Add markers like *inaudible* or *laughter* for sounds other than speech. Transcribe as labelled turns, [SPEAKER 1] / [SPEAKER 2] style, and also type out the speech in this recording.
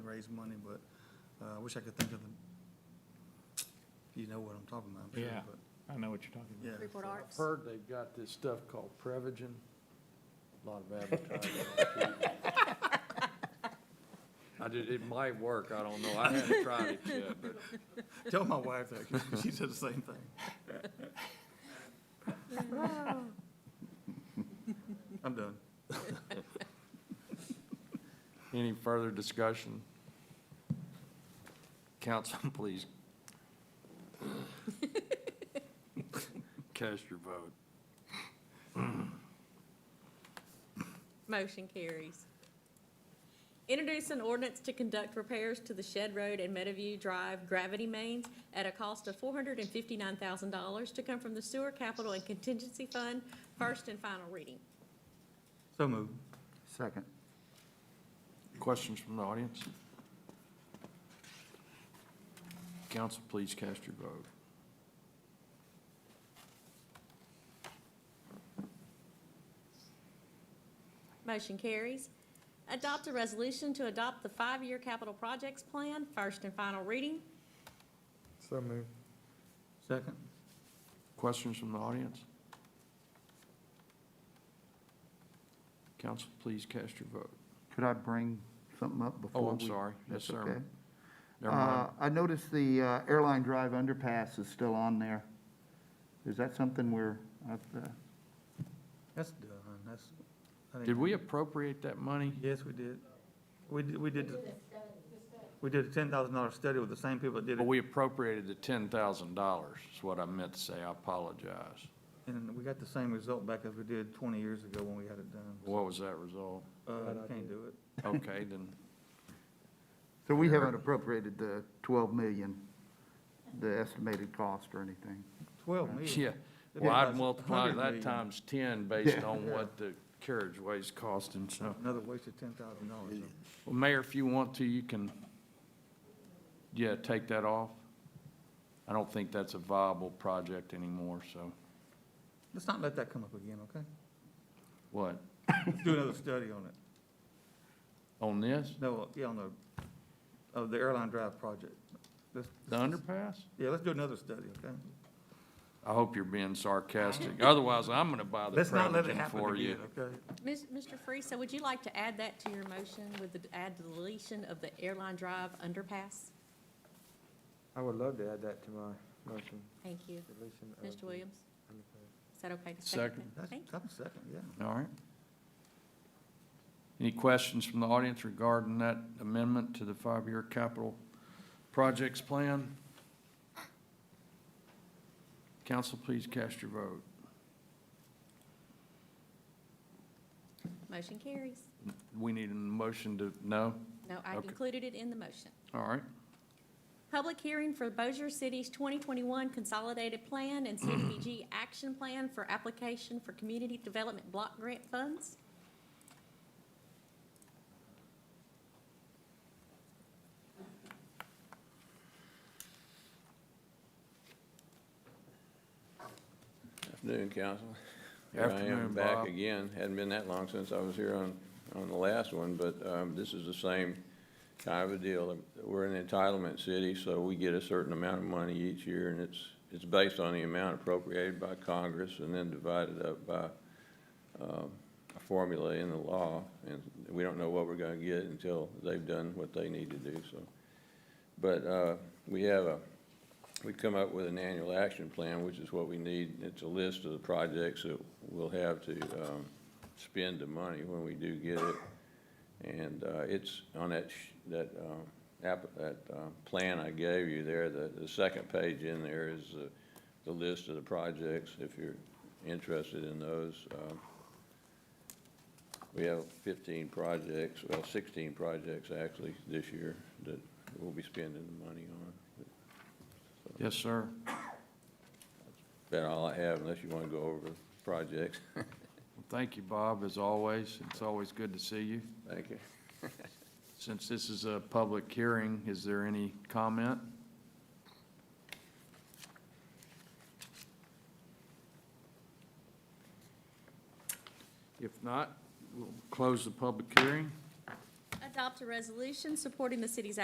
[SPEAKER 1] raise money, but uh, I wish I could think of the, you know what I'm talking about, I'm sure,
[SPEAKER 2] Yeah.
[SPEAKER 1] but,
[SPEAKER 2] I know what you're talking
[SPEAKER 1] yeah.
[SPEAKER 2] about.
[SPEAKER 3] Freeport
[SPEAKER 1] so-
[SPEAKER 3] Arts.
[SPEAKER 4] Heard they've got this stuff called Prevagen, a lot of *laughs* advertising. on TV. I did, it might work, I don't know, I haven't tried it yet, but
[SPEAKER 1] Tell my wife that, 'cause she said the same thing. I'm done.
[SPEAKER 4] any further discussion? Council, *laughs* please. Cast your vote.
[SPEAKER 3] Motion carries. Introduce an ordinance to conduct repairs to the Shed Road and Meadowview Drive gravity mains at a cost of four hundred and fifty-nine thousand dollars to come from the Sewer Capital and Contingency Fund, first and final reading.
[SPEAKER 1] So moved.
[SPEAKER 5] Second.
[SPEAKER 4] Questions from the audience? Council, please cast your vote.
[SPEAKER 3] Motion carries. Adopt a resolution to adopt the five-year capital projects plan, first and final reading.
[SPEAKER 5] So moved.
[SPEAKER 1] Second.
[SPEAKER 4] Questions from the audience? Council, please cast your vote.
[SPEAKER 5] Could I bring something up before?
[SPEAKER 4] Oh, I'm
[SPEAKER 5] we-
[SPEAKER 4] sorry. Yes,
[SPEAKER 5] That's
[SPEAKER 4] sir.
[SPEAKER 5] okay.
[SPEAKER 4] Never
[SPEAKER 5] Uh,
[SPEAKER 4] mind.
[SPEAKER 5] I noticed the uh, Airline Drive underpass is still on there. Is that something we're, I've, uh,
[SPEAKER 1] That's done, that's. I think-
[SPEAKER 4] Did we appropriate that money?
[SPEAKER 1] Yes, we did. We did, we did, the- we did a ten thousand dollar study with the same people that did
[SPEAKER 4] But
[SPEAKER 1] it,
[SPEAKER 4] we appropriated the ten thousand dollars, is what I meant to say. I apologize.
[SPEAKER 1] and we got the same result back as we did twenty years ago when we had it done.
[SPEAKER 4] What was that result?
[SPEAKER 1] Uh, you can't do it.
[SPEAKER 4] Okay, then, *laughs*
[SPEAKER 5] so we haven't appropriated the 12 million, the estimated cost or anything?
[SPEAKER 1] Twelve million.
[SPEAKER 4] yeah.
[SPEAKER 1] It'd be
[SPEAKER 4] Well, I'd
[SPEAKER 1] about
[SPEAKER 4] multiply
[SPEAKER 1] 100
[SPEAKER 4] that
[SPEAKER 1] million.
[SPEAKER 4] times ten based *laughs*
[SPEAKER 5] Yeah.
[SPEAKER 4] on what the carriageway's costing, so.
[SPEAKER 1] Another waste of ten thousand dollars.
[SPEAKER 4] Well, Mayor, if you want to, you can, yeah, take that off. I don't think that's a viable project anymore, so,
[SPEAKER 1] Let's not let that come up again, okay?
[SPEAKER 4] what,
[SPEAKER 1] Let's Do another study on it.
[SPEAKER 4] on this,
[SPEAKER 1] No, uh, yeah, on the, of the airline drive project. Let's-
[SPEAKER 4] the underpass?
[SPEAKER 1] Yeah, let's do another study, okay?
[SPEAKER 4] I hope you're being
[SPEAKER 1] *laughs*
[SPEAKER 4] sarcastic, otherwise I'm gonna buy the
[SPEAKER 1] Let's not let it
[SPEAKER 4] Prevagen
[SPEAKER 1] happen
[SPEAKER 4] for you.
[SPEAKER 1] again, okay?
[SPEAKER 3] Ms- Mr. Friesa, would you like to add that to your motion with the, add the deletion of the airline drive underpass?
[SPEAKER 6] I would love to add that to my motion,
[SPEAKER 3] Thank you.
[SPEAKER 6] deletion of.
[SPEAKER 3] Mr.
[SPEAKER 6] uh, the
[SPEAKER 3] Williams,
[SPEAKER 6] underpass.
[SPEAKER 3] is that okay to
[SPEAKER 4] Second.
[SPEAKER 3] second? that?
[SPEAKER 1] That's,
[SPEAKER 3] Thank you.
[SPEAKER 1] that's second, yeah.
[SPEAKER 4] All right. Any questions from the audience regarding that amendment to the five-year capital projects plan? Council, please cast your vote.
[SPEAKER 3] Motion carries.
[SPEAKER 4] We need a motion to, no?
[SPEAKER 3] No, I
[SPEAKER 4] Okay.
[SPEAKER 3] included it in the motion.
[SPEAKER 4] All right.
[SPEAKER 3] Public hearing for Bossier City's 2021 Consolidated Plan and CDBG Action Plan for application for community development block grant funds.
[SPEAKER 7] Afternoon, Council. Here I
[SPEAKER 4] Afternoon,
[SPEAKER 7] am back
[SPEAKER 4] Bob.
[SPEAKER 7] again. Hadn't been that long since I was here on, on the last one, but um, this is the same kind of a deal. We're an entitlement city, so we get a certain amount of money each year, and it's, it's based on the amount appropriated by Congress and then divided up by um, a formula in the law. And we don't know what we're going to get until they've done what they need to do, so. But uh, we have a we come up with an annual action plan, which is what we need. It's a list of the projects that we'll have to um, spend the money when we do get it. And uh, it's on that, sh- that, um, app, that um, plan I gave you there, the, the second page in there is the, the list of the projects, if you're interested in those. Um, We have 15 projects, well, 16 projects actually this year that we'll be spending the money on.
[SPEAKER 4] Yes, sir.
[SPEAKER 7] About all I have, unless you want to go over the projects.
[SPEAKER 4] Well, Thank you, Bob, as always. It's always good to see you.
[SPEAKER 7] Thank you.
[SPEAKER 4] Since this is a public hearing, is there any comment? If not, we'll close the public hearing.
[SPEAKER 3] adopt a resolution supporting the city's